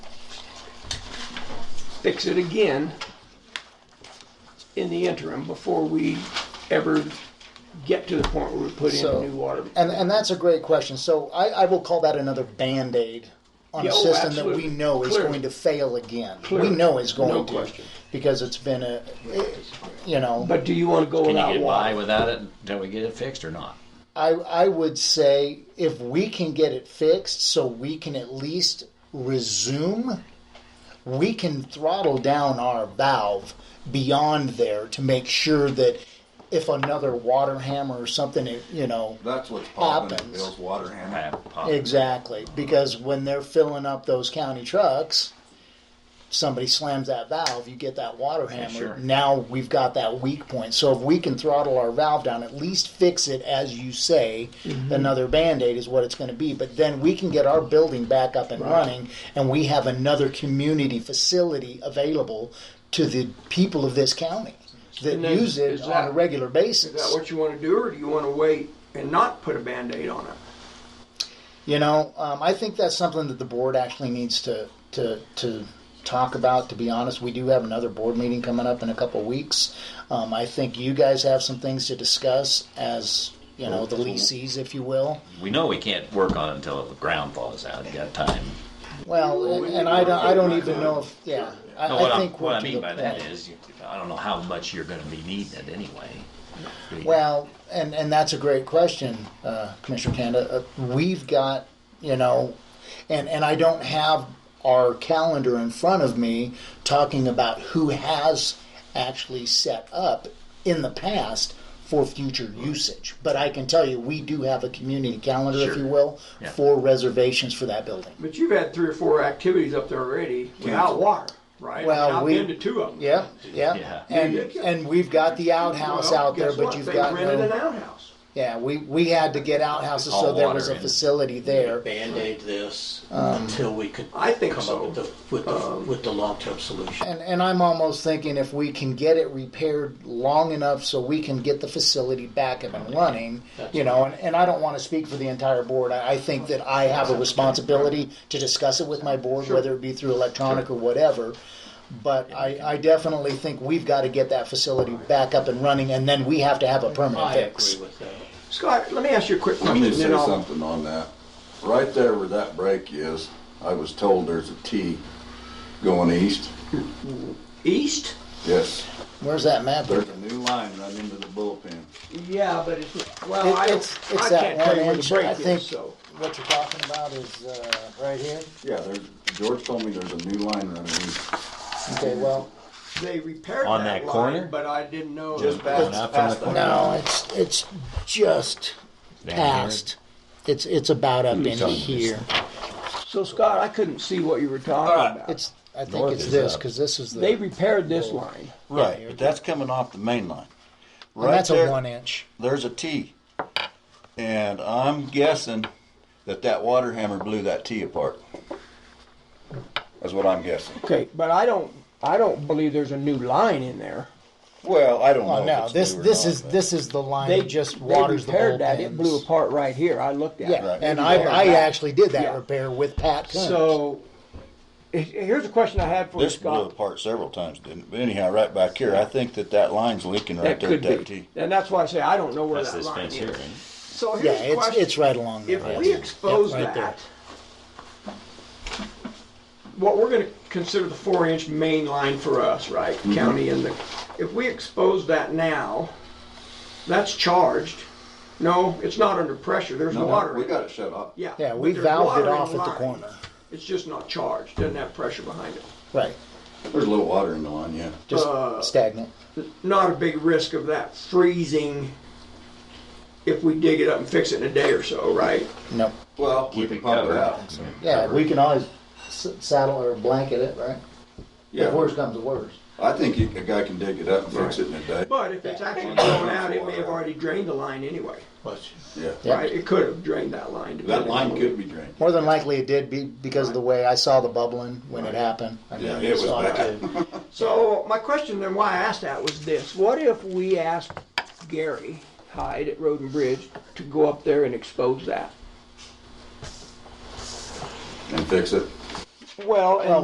fix it again in the interim before we ever get to the point where we put in So- new water. And and that's a great question. So I, I will call that another band aid on Yeah, a oh, system that absolutely. we know is Clearly. going to fail again. Clearly. We know it's going No to question. because it's been a you know But do you want to go Can without you get by water? without it until we get it fixed or not? I I would say if we can get it fixed so we can at least resume we can throttle down our valve beyond there to make sure that if another water hammer or something you know That's what's popping at Happens. Bill's water hammer. Pop, pop. Exactly, because when they're filling up those county trucks, somebody slams that valve, you get that water hammer. sure. Now we've got that weak point. So if we can throttle our valve down, at least fix it, as you say, Mm-hmm. another band aid is what it's going to be. But then we can get our building back up and running, and we have another community facility available to the people of this county that And then use it is on that- a regular Is basis. that what you want to do, or do you want to wait and not put a Band-Aid on it? You know, um, I think that's something that the board actually needs to to to talk about. To be honest, we do have another board meeting coming up in a couple of weeks. Um, I think you guys have some things to discuss as you know the leases, if you will. We know we can't work on it until the ground thaws out. You got time. Well, and, and I don't I don't even know if yeah. I, No, what I I, think what we're I to mean the by that point. is, you, I don't know how much you're going to be needing it anyway. Well, and, and that's a great question, uh, Commissioner Kanda. Uh, we've got, you know, and, and I don't have our calendar in front of me talking about who has actually set up in the past for future usage. But I can tell you, we do have a community calendar, if Sure. you will, Yeah. for reservations for that building. But you've had three or four activities up there already without water, right? Well, And I've we- been to two of them. Yeah, yeah, Yeah. and Yeah. and we've got the outhouse Well, out there, guess but what? you've they got rented no, an outhouse. yeah. We we had to get outhouses, so All there was water a in. facility there. Band-aid this until we could Um, I think come so. Um, up with the, with the, with the long-term solution. And, and I'm almost thinking if we can get it repaired long enough so we can get the facility back up and running, you know, and, and I don't want to speak for the entire board. I, I think that I have a responsibility to discuss it with my board, whether it be through electronic or whatever. But I, I definitely think we've got to get that facility back up and running, and then we have to have a permanent I fix. agree with that. Scott, let me ask you a quick Let question. me and say then I'll- something on that. Right there where that break is, I was told there's a T going east. East? Yes, Where's that map? there's a new line running into the bullpen. Yeah, but it's, well, It- I, don't- it's- it's I that can't tell you where one the inch, break I is, think. so. What you're talking about is uh, right here. Yeah, there's, George told me there's a new line running east. Okay, well, They repaired On that that line, corner? but I didn't know. Just that- Going up from the corner? no, it's it's just. past. It's it's about Hmm, up in here. So Scott, I couldn't see what you were talking about. It's I think North it's is this up. because this is the they repaired this line. Right, but that's coming off the main line. and Right that's there, a one inch. there's a T. And I'm guessing that that water hammer blew that T apart. That's what I'm guessing. Okay, but I don't. I don't believe there's a new line in there. Well, I don't Oh know. no, if it's this new or this not, is but- this is the line They that just they waters the whole repaired that. It blew apart right here. I looked at Yeah, it. Right. and They I repaired I that. actually did that Yeah. repair with Pat. Coons. So he- here's a question I had for This you, blew Scott. apart several times, didn't it? But anyhow, right back here, I think that that line's leaking right That there could at that be, T. and that's why I say I don't know where That's that this line fence here. is. ain't it? So here's yeah, the it's question. it's right along there. If right we there. expose Yep, right there. that, what we're going to consider the four inch main line for us, right? County and the, if we expose that now, that's charged. No, it's not under pressure. There's No, water. no, we in it. got it shut off. Yeah. Yeah, but we there's valved water it in off at the line. corner. It's just not charged. Doesn't have pressure behind it. right, There's a little water in the line, yeah. just uh, stagnant. Not a big risk of that freezing if we dig it up and fix it in a day or so, right? No, Well, we can pump it covered. out. yeah, we can always s- saddle or blanket it, right? If Yeah, worse comes to worse. I think you- a guy can dig it up and fix it in a day. But if it's actually going out, it may have already drained the line anyway, Yeah, Yeah. right? It could have drained that line. that depending line on- could be drained. More than likely, it did be because of the way I saw the bubbling when it happened. I mean, Yeah, it was saw bad. too. So my question then, why I asked that was this: What if we asked Gary Hyde at Road and Bridge to go up there and expose that? And fix it. Well, and